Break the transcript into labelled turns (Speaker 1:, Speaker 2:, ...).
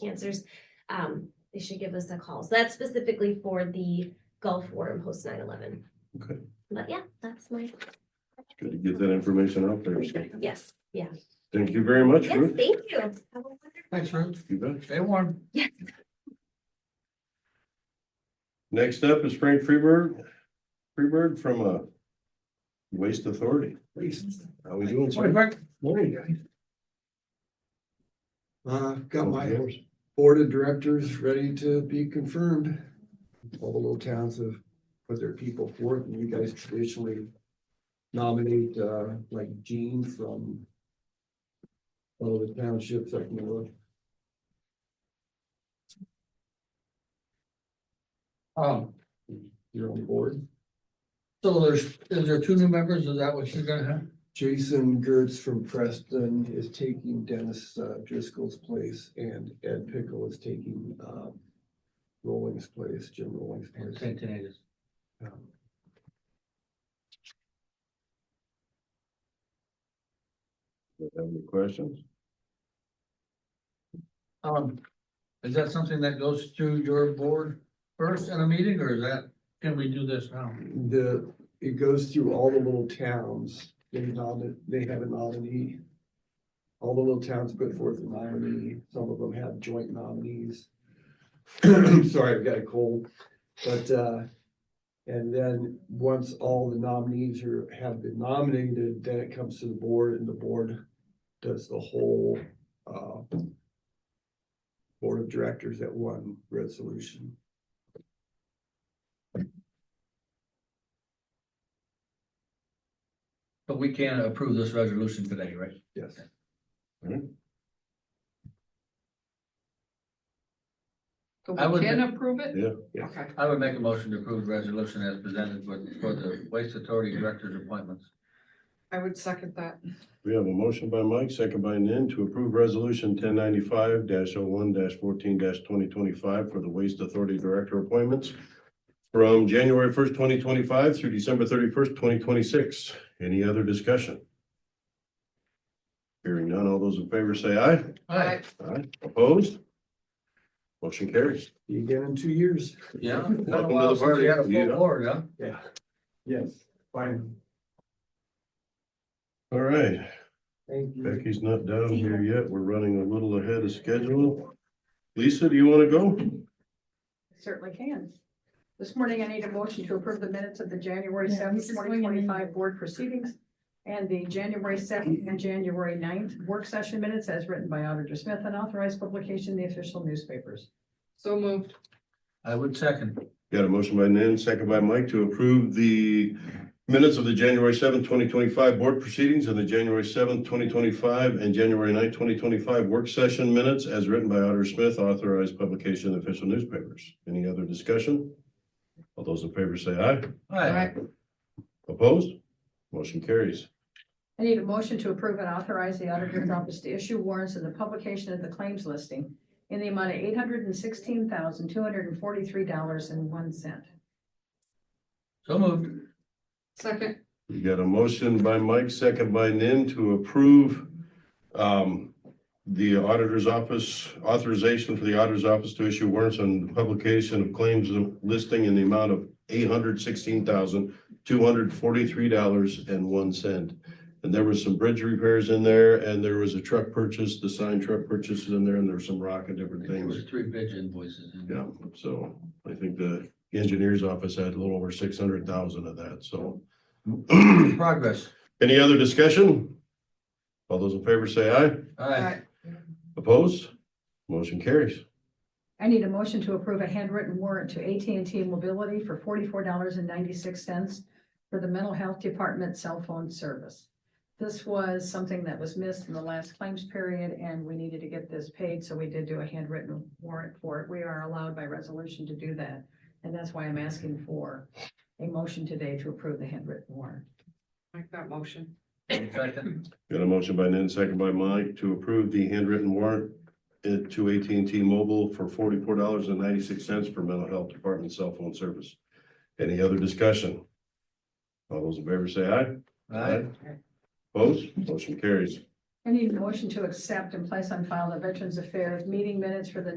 Speaker 1: cancers, um, they should give us a call. So that's specifically for the Gulf War and post 9/11.
Speaker 2: Okay.
Speaker 1: But yeah, that's my,
Speaker 2: Good to get that information out there. So
Speaker 1: yes, yeah.
Speaker 2: thank you very much,
Speaker 1: Yes,
Speaker 2: Ruth.
Speaker 1: thank you. Have a wonderful-
Speaker 3: Thanks, Ruth.
Speaker 2: You bet.
Speaker 3: Stay warm.
Speaker 1: Yes.
Speaker 2: Next up is Frank Freeberg, Freeberg from uh Waste Authority. How we doing, sir?
Speaker 4: Morning, guys. Uh, got my
Speaker 2: Yours.
Speaker 4: board of directors ready to be confirmed. All the little towns have put their people forth, and you guys traditionally nominate, uh, like Gene from all the townships, I can look.
Speaker 3: Um,
Speaker 4: you're on board.
Speaker 3: so there's, is there two new members? Is that what you're gonna have?
Speaker 4: Jason Gertz from Preston is taking Dennis uh, Driscoll's place, and Ed Pickle is taking, um, Rolling's place, Jim Rolling's place.
Speaker 3: Centennials.
Speaker 4: Um,
Speaker 2: Have any questions?
Speaker 3: Um, is that something that goes through your board first in a meeting or is that, can we do this now?
Speaker 4: The, it goes through all the little towns, they nominate, they have a nominee. All the little towns put forth a nominee, some of them have joint nominees. Sorry, I've got a cold, but, uh, and then once all the nominees are, have been nominated, then it comes to the board and the board does the whole, uh, board of directors at one resolution.
Speaker 3: But we can approve this resolution today, right?
Speaker 4: Yes.
Speaker 3: I
Speaker 5: So
Speaker 3: would
Speaker 5: we can approve it?
Speaker 2: Yeah.
Speaker 4: Yeah.
Speaker 5: Okay,
Speaker 3: I would make a motion to approve the resolution as presented for, for the Waste Authority Director's appointments.
Speaker 5: I would second that.
Speaker 2: We have a motion by Mike, second by Nan to approve resolution ten ninety-five oh one fourteen twenty twenty-five for the Waste Authority Director appointments from January first, twenty twenty-five through December thirty-first, twenty twenty-six. Any other discussion? Hearing none, all those in favor say aye.
Speaker 5: Aye.
Speaker 2: Aye. Opposed? Motion carries.
Speaker 4: See You again in two years.
Speaker 3: Yeah.
Speaker 2: Welcome
Speaker 3: Been
Speaker 2: to
Speaker 3: a
Speaker 2: the
Speaker 3: while since we had a
Speaker 2: party.
Speaker 3: full
Speaker 2: Yeah.
Speaker 3: board, huh?
Speaker 4: Yeah. Yes, fine.
Speaker 2: All right,
Speaker 4: Thank you.
Speaker 2: Becky's not down here yet. We're running a little ahead of schedule. Lisa, do you want to go?
Speaker 5: Certainly can. This morning I need a motion to approve the minutes of the January
Speaker 6: Yeah,
Speaker 5: seventh,
Speaker 6: this is
Speaker 5: twenty
Speaker 6: going in.
Speaker 5: twenty-five board proceedings and the January second and January 9th work session minutes as written by Auditor Smith and authorized publication in the official newspapers.
Speaker 6: So moved.
Speaker 3: I would second.
Speaker 2: Got a motion by Nan, second by Mike to approve the minutes of the January seventh, twenty twenty-five board proceedings and the January seventh, twenty twenty-five and January 9th, twenty twenty-five work session minutes as written by Otter Smith, authorized publication in official newspapers. Any other discussion? All those in favor say aye.
Speaker 3: Aye.
Speaker 2: Opposed? Motion carries.
Speaker 5: I need a motion to approve and authorize the auditor's office to issue warrants in the publication of the claims listing in the amount of eight hundred and sixteen thousand, two hundred and forty-three dollars and one cent.
Speaker 3: So moved.
Speaker 6: Second.
Speaker 2: We got a motion by Mike, second by Nan to approve um, the auditor's office authorization for the auditor's office to issue warrants on the publication of claims listing in the amount of eight hundred sixteen thousand, two hundred forty-three dollars and one cent. And there was some bridge repairs in there and there was a truck purchase, the signed truck purchases in there and there was some rock and different
Speaker 3: There
Speaker 2: things.
Speaker 3: was three bridge invoices. in there.
Speaker 2: Yeah, so I think the engineer's office had a little over six hundred thousand of that, so.
Speaker 3: Progress.
Speaker 2: Any other discussion? All those in favor say aye.
Speaker 3: Aye.
Speaker 2: Opposed? Motion carries.
Speaker 5: I need a motion to approve a handwritten warrant to AT&T Mobility for forty-four dollars and ninety-six cents for the mental health department cell phone service. This was something that was missed in the last claims period, and we needed to get this paid, so we did do a handwritten warrant for it. We are allowed by resolution to do that, and that's why I'm asking for a motion today to approve the handwritten warrant.
Speaker 6: Make that motion.
Speaker 3: Second.
Speaker 2: Got a motion by Nan, second by Mike to approve the handwritten warrant uh, to AT&T Mobile for forty-four dollars and ninety-six cents for mental health department cell phone service. Any other discussion? All those in favor say aye.
Speaker 3: Aye.
Speaker 2: Opposed? Motion carries.
Speaker 5: I need a motion to accept and place on file the Veterans Affairs meeting minutes for the